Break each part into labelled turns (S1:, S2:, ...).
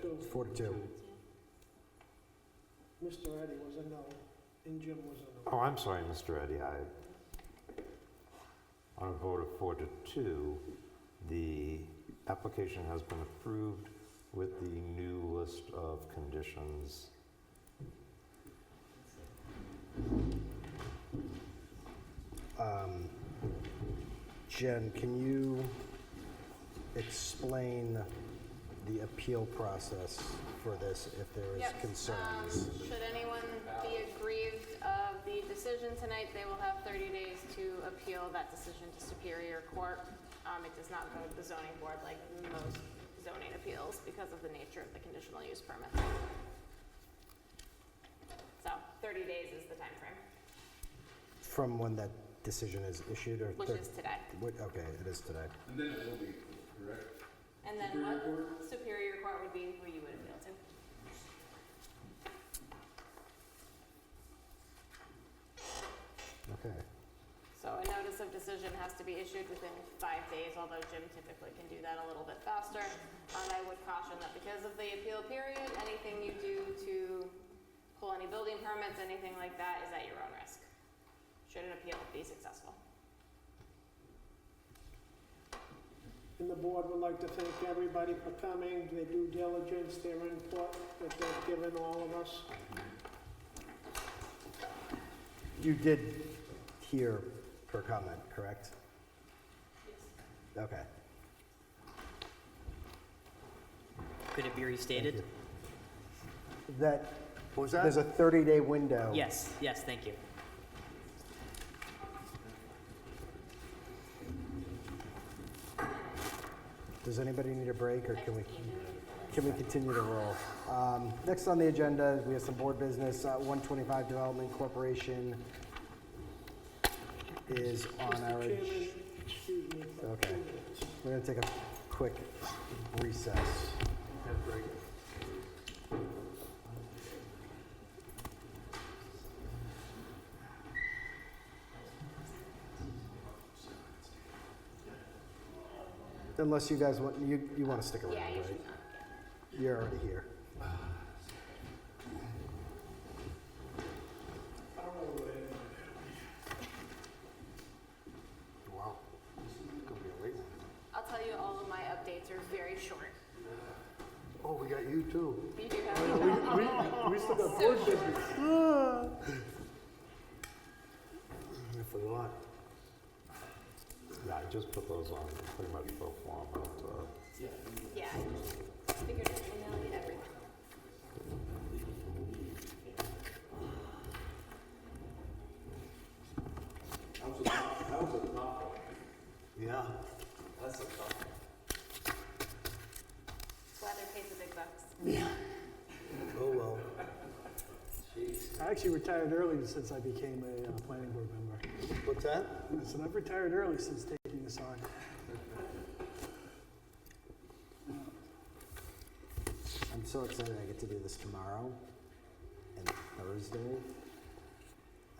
S1: two.
S2: Four to two.
S1: Mr. Eddie was a no, and Jim was a no.
S3: Oh, I'm sorry, Mr. Eddy, I, on a vote of four to two, the application has been approved with the new list of conditions.
S2: Um, Jen, can you explain the appeal process for this if there is
S4: Yep,
S2: concerns?
S4: um, Should anyone be aggrieved of the decision tonight, they will have 30 days to appeal that decision to Superior Court. Um, It does not go to the zoning board like most zoning appeals because of the nature of the conditional use permit. So 30 days is the timeframe,
S2: From when that decision is issued or?
S4: which
S2: thir-
S4: is today.
S2: what- Okay, it is today.
S5: And then it will be, correct?
S4: And then
S5: Superior
S4: what Superior Court would be who you would appeal to.
S2: Okay.
S4: So a notice of decision has to be issued within five days, although Jim typically can do that a little bit faster. And I would caution that because of the appeal period, anything you do to pull any building permits, anything like that, is at your own risk. Should an appeal be successful?
S1: And the board would like to thank everybody for coming, their due diligence, their input that they've given all of us.
S2: You did hear her comment, correct? Okay.
S6: Could it be restated?
S2: That,
S3: What was
S2: there's a 30-day window.
S6: Yes, yes, thank you.
S2: Does anybody need a break, or can we,
S4: Evening.
S2: can we continue to roll? Um, Next on the agenda, we have some board business. Uh, 125 Development Corporation is on our...
S1: Mr.
S2: ag-
S1: Chairman, excuse me for
S2: Okay.
S1: two minutes.
S2: We're going to take a quick recess. Unless you guys want, you, you want to stick around,
S4: Yeah, you
S2: right?
S4: should not, yeah.
S2: You're already here. Wow. Gonna be a late one.
S4: I'll tell you, all of my updates are very short.
S2: Oh, we got you too.
S4: You do have.
S5: We still got
S4: So short.
S2: I forgot.
S3: Yeah, I just put those on pretty much pro forma, uh,
S4: Yeah, I figured I'd email you everything.
S2: Yeah.
S4: That's why they're paid the big bucks.
S2: Oh, well.
S7: I actually retired early since I became a uh, planning board member.
S2: What's that?
S7: I said, I've retired early since taking this on.
S2: I'm so excited I get to do this tomorrow and Thursday.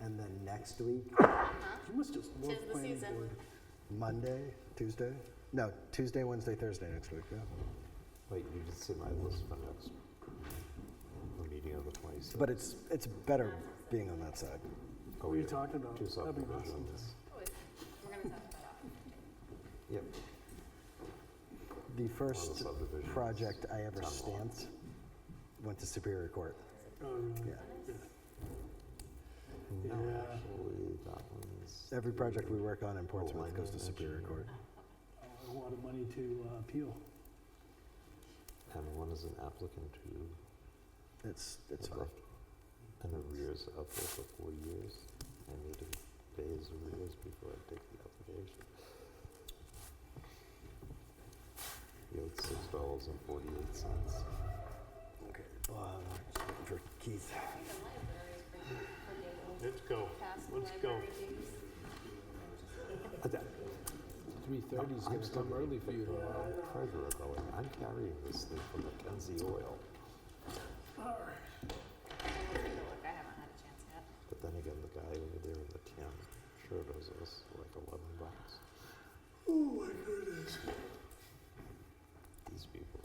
S2: And then next week,
S7: You must just love
S4: Tis the
S7: planning
S4: season.
S7: board.
S2: Monday, Tuesday? No, Tuesday, Wednesday, Thursday next week, yeah.
S3: wait, you did see my list for next, the meeting of the twenty-sixth.
S2: But it's, it's better being on that side.
S7: What are you talking about?
S3: Oh, Two
S7: That'd be awesome.
S3: subdivisions.
S4: Oh, We're gonna talk about that.
S3: Yep,
S2: The
S3: one of the
S2: first
S3: subdivisions.
S2: project I ever
S3: Town hall.
S2: stamped went to Superior Court,
S7: Oh, really?
S2: yeah.
S3: No,
S7: Yeah.
S3: actually, that one's.
S2: Every project we work on
S3: Oh,
S2: in
S3: I
S2: Portsmouth goes to
S3: didn't
S2: Superior
S3: mention
S2: Court.
S7: Oh, A lot of money to uh, appeal.
S3: And one is an applicant who
S2: It's,
S3: It's
S2: it's fine.
S3: left an arrears of upwards for four years. I need to pay his arrears before I take the application. He owed six dollars and forty-eight cents.
S2: Okay. Well, I'm waiting For Keith.
S4: The library is pretty forgiving.
S5: Let's go.
S4: Past
S5: Let's go.
S4: library dues.
S5: Three thirty's gonna come early for you tomorrow.
S3: Treasurer going, I'm carrying this thing from Mackenzie Oil.
S4: I will take a look. I haven't had a chance yet.
S3: But then again, the guy over there in the tin sure does us like eleven bucks. Oh my goodness. These people